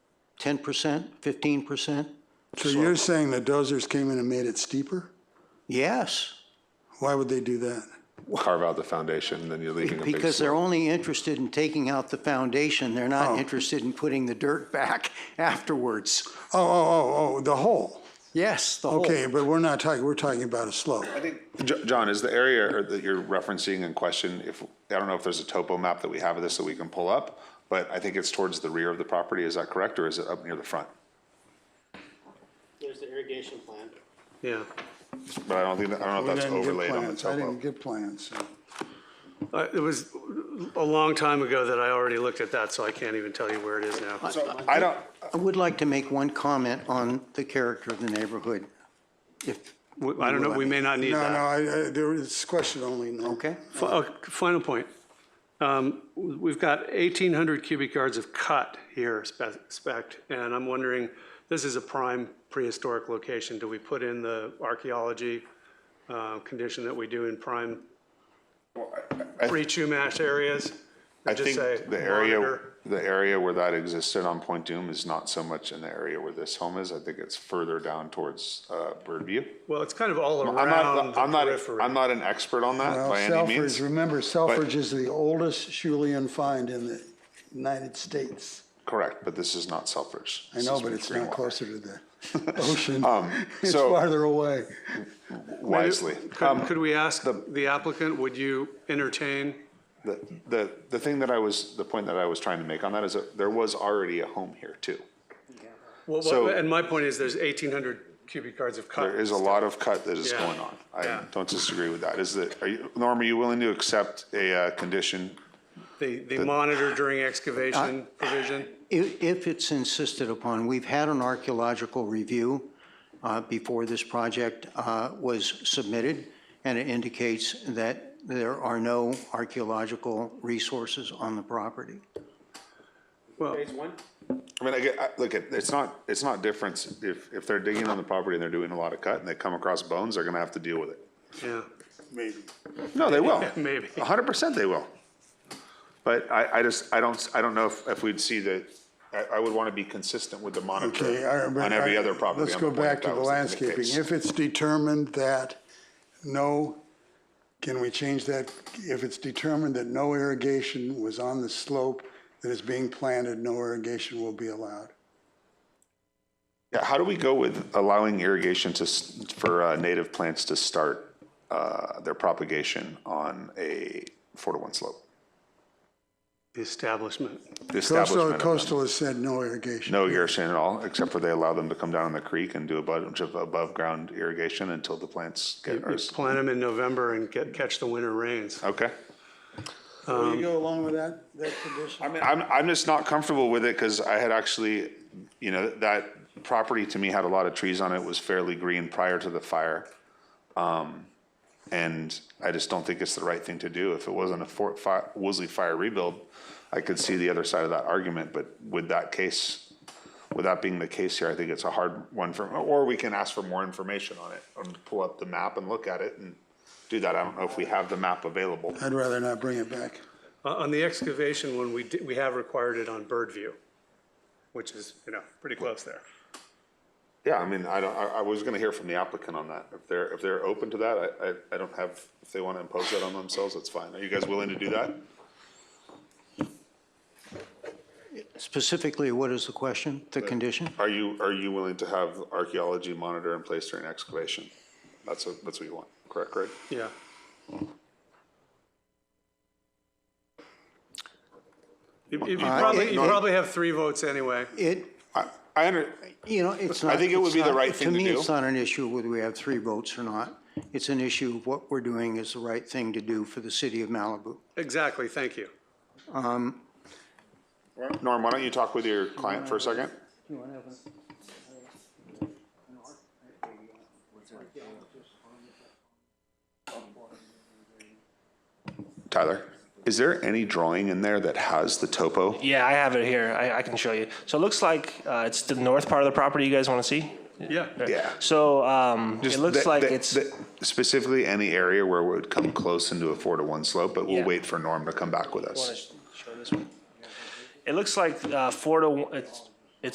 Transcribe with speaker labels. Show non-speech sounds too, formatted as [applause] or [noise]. Speaker 1: 10%, 15%?
Speaker 2: So you're saying the dozers came in and made it steeper?
Speaker 1: Yes,
Speaker 2: Why would they do that?
Speaker 3: carve out the foundation, then you're leaving a big
Speaker 1: because they're
Speaker 3: slope.
Speaker 1: only interested in taking out the foundation. They're
Speaker 3: Oh.
Speaker 1: not interested in putting the dirt back [laughs] afterwards.
Speaker 2: Oh, oh, oh, oh, the hole.
Speaker 1: Yes, the whole.
Speaker 2: Okay, but we're not talking, we're talking about a slope.
Speaker 3: Jo- John, is the area or that you're referencing in question, if, I don't know if there's a topo map that we have of this that we can pull up, but I think it's towards the rear of the property, is that correct, or is it up near the front?
Speaker 4: There's the irrigation plan.
Speaker 5: Yeah,
Speaker 3: But I don't think, that- I don't know
Speaker 2: We
Speaker 3: if that's
Speaker 2: didn't get
Speaker 3: overlaid on the
Speaker 2: plans. I
Speaker 3: topo.
Speaker 2: didn't get plans. so-
Speaker 5: I- Uh, it was a long time ago that I already looked at that, so I can't even tell you where it is now.
Speaker 3: So I don't,
Speaker 1: I would like to make one comment on the character of the neighborhood. If,
Speaker 5: I don't know, we may not need
Speaker 2: No, no,
Speaker 5: that.
Speaker 2: I, I, there is question only, no.
Speaker 1: okay?
Speaker 5: Fi- uh, Final point. Um, We've got 1,800 cubic yards of cut here spe- spec, and I'm wondering, this is a prime prehistoric location. Do we put in the archaeology uh, condition that we do in prime pre-Chumash areas?
Speaker 3: I
Speaker 5: just
Speaker 3: think
Speaker 5: say
Speaker 3: the area,
Speaker 5: monitor.
Speaker 3: the area where that existed on Point Doom is not so much in the area where this home is. I think it's further down towards, uh, Birdview.
Speaker 5: Well, it's kind of all
Speaker 3: I'm
Speaker 5: around
Speaker 3: not,
Speaker 5: the
Speaker 3: I'm not,
Speaker 5: periphery.
Speaker 3: I'm not an expert on that
Speaker 2: Well,
Speaker 3: by any
Speaker 2: Selfridge,
Speaker 3: means.
Speaker 2: remember Selfridge is the oldest Schulean find in the United States.
Speaker 3: Correct, but this is not Selfridge.
Speaker 2: I
Speaker 3: This
Speaker 2: know,
Speaker 3: is
Speaker 2: but it's
Speaker 3: Greenwater.
Speaker 2: not closer to
Speaker 3: [laughs]
Speaker 2: the ocean. [laughs] It's
Speaker 3: Um, so-
Speaker 2: farther away.
Speaker 3: Wisely. Um,
Speaker 5: Could could we ask the applicant, would you entertain?
Speaker 3: The, the, the thing that I was, the point that I was trying to make on that is that there was already a home here too.
Speaker 5: Well,
Speaker 3: So-
Speaker 5: what- And my point is, there's 1,800 cubic yards of cut.
Speaker 3: There is a lot of cut that is
Speaker 5: Yeah.
Speaker 3: going on. I
Speaker 5: Yeah.
Speaker 3: don't disagree with that. Is that, are you, Norm, are you willing to accept a, uh, condition?
Speaker 5: The, the monitor during excavation provision?
Speaker 1: If, if it's insisted upon, we've had an archaeological review uh, before this project uh, was submitted, and it indicates that there are no archaeological resources on the property.
Speaker 5: Well,
Speaker 4: Phase one?
Speaker 3: I mean, I get, I, look, it- it's not, it's not different. If, if they're digging on the property and they're doing a lot of cut and they come across bones, they're gonna have to deal with it.
Speaker 5: yeah,
Speaker 3: No, they will.
Speaker 5: maybe.
Speaker 3: A hundred percent they will. But I, I just, I don't, I don't know if, if we'd see the, I, I would want to be consistent with the
Speaker 2: Okay,
Speaker 3: monitor
Speaker 2: I- but
Speaker 3: on every
Speaker 2: I-
Speaker 3: other property.
Speaker 2: Let's
Speaker 3: on the
Speaker 2: go
Speaker 3: point, if
Speaker 2: back to
Speaker 3: that
Speaker 2: the
Speaker 3: was case.
Speaker 2: landscaping. If it's determined that no, can we change that? If it's determined that no irrigation was on the slope that is being planted, no irrigation will be allowed.
Speaker 3: Yeah, how do we go with allowing irrigation to, s- for uh, native plants to start uh, their propagation on a four to one slope?
Speaker 5: the establishment.
Speaker 3: The
Speaker 2: Coastal,
Speaker 3: establishment of them.
Speaker 2: coastal has said no irrigation.
Speaker 3: No irrigation at all, except for they allow them to come down in the creek and do a bunch of above-ground irrigation until the plants get,
Speaker 5: You
Speaker 3: are-
Speaker 5: Plant them in November and get, catch the winter rains.
Speaker 3: okay?
Speaker 2: Will you go along with that, that condition?
Speaker 3: I mean, I'm, I'm just not comfortable with it because I had actually, you know, that property to me had a lot of trees on it, was fairly green prior to the fire. Um, And I just don't think it's the right thing to do. If it wasn't a Fort Fi- Woolsey fire rebuild, I could see the other side of that argument, but with that case, with that being the case here, I think it's a hard one for, or we can ask for more information on it and pull up the map and look at it and do that. I don't know if we have the map available.
Speaker 2: I'd rather not bring it back.
Speaker 5: Uh, On the excavation one, we, di- we have required it on bird view, which is, you know, pretty close there.
Speaker 3: Yeah, I mean, I don't, I, I was gonna hear from the applicant on that. If they're, if they're open to that, I, I, I don't have, if they wanna impose that on themselves, that's fine. Are you guys willing to do that?
Speaker 1: Specifically, what is the question, the condition?
Speaker 3: Are you, are you willing to have archaeology monitor in place during excavation? That's what, that's what you want, correct, Greg?
Speaker 5: Yeah. You, you- you probably, you
Speaker 3: no.
Speaker 5: probably have three votes anyway.
Speaker 1: It,
Speaker 3: I, I under,
Speaker 1: you know, it's not.
Speaker 3: think it would
Speaker 1: it's
Speaker 3: be the
Speaker 1: not-
Speaker 3: right thing to
Speaker 1: me,
Speaker 3: do.
Speaker 1: it's not an issue whether we have three votes or not. It's an issue of what we're doing is the right thing to do for the city of Malibu.
Speaker 5: Exactly, thank you.
Speaker 3: Norm, why don't you talk with your client for a second? Tyler, is there any drawing in there that has the topo?
Speaker 6: Yeah, I have it here. I, I can show you. So it looks like uh, it's the north part of the property you guys want to see.
Speaker 5: Yeah.
Speaker 3: Yeah.
Speaker 6: So um, it
Speaker 3: Just
Speaker 6: looks
Speaker 3: the-
Speaker 6: like
Speaker 3: the-
Speaker 6: it's
Speaker 3: the- Specifically, any area where it would come close into a four to one slope, but we'll
Speaker 6: Yeah.
Speaker 3: wait for Norm to come back with us.
Speaker 6: Wanna sh- show this one? It looks like uh, four to one, it's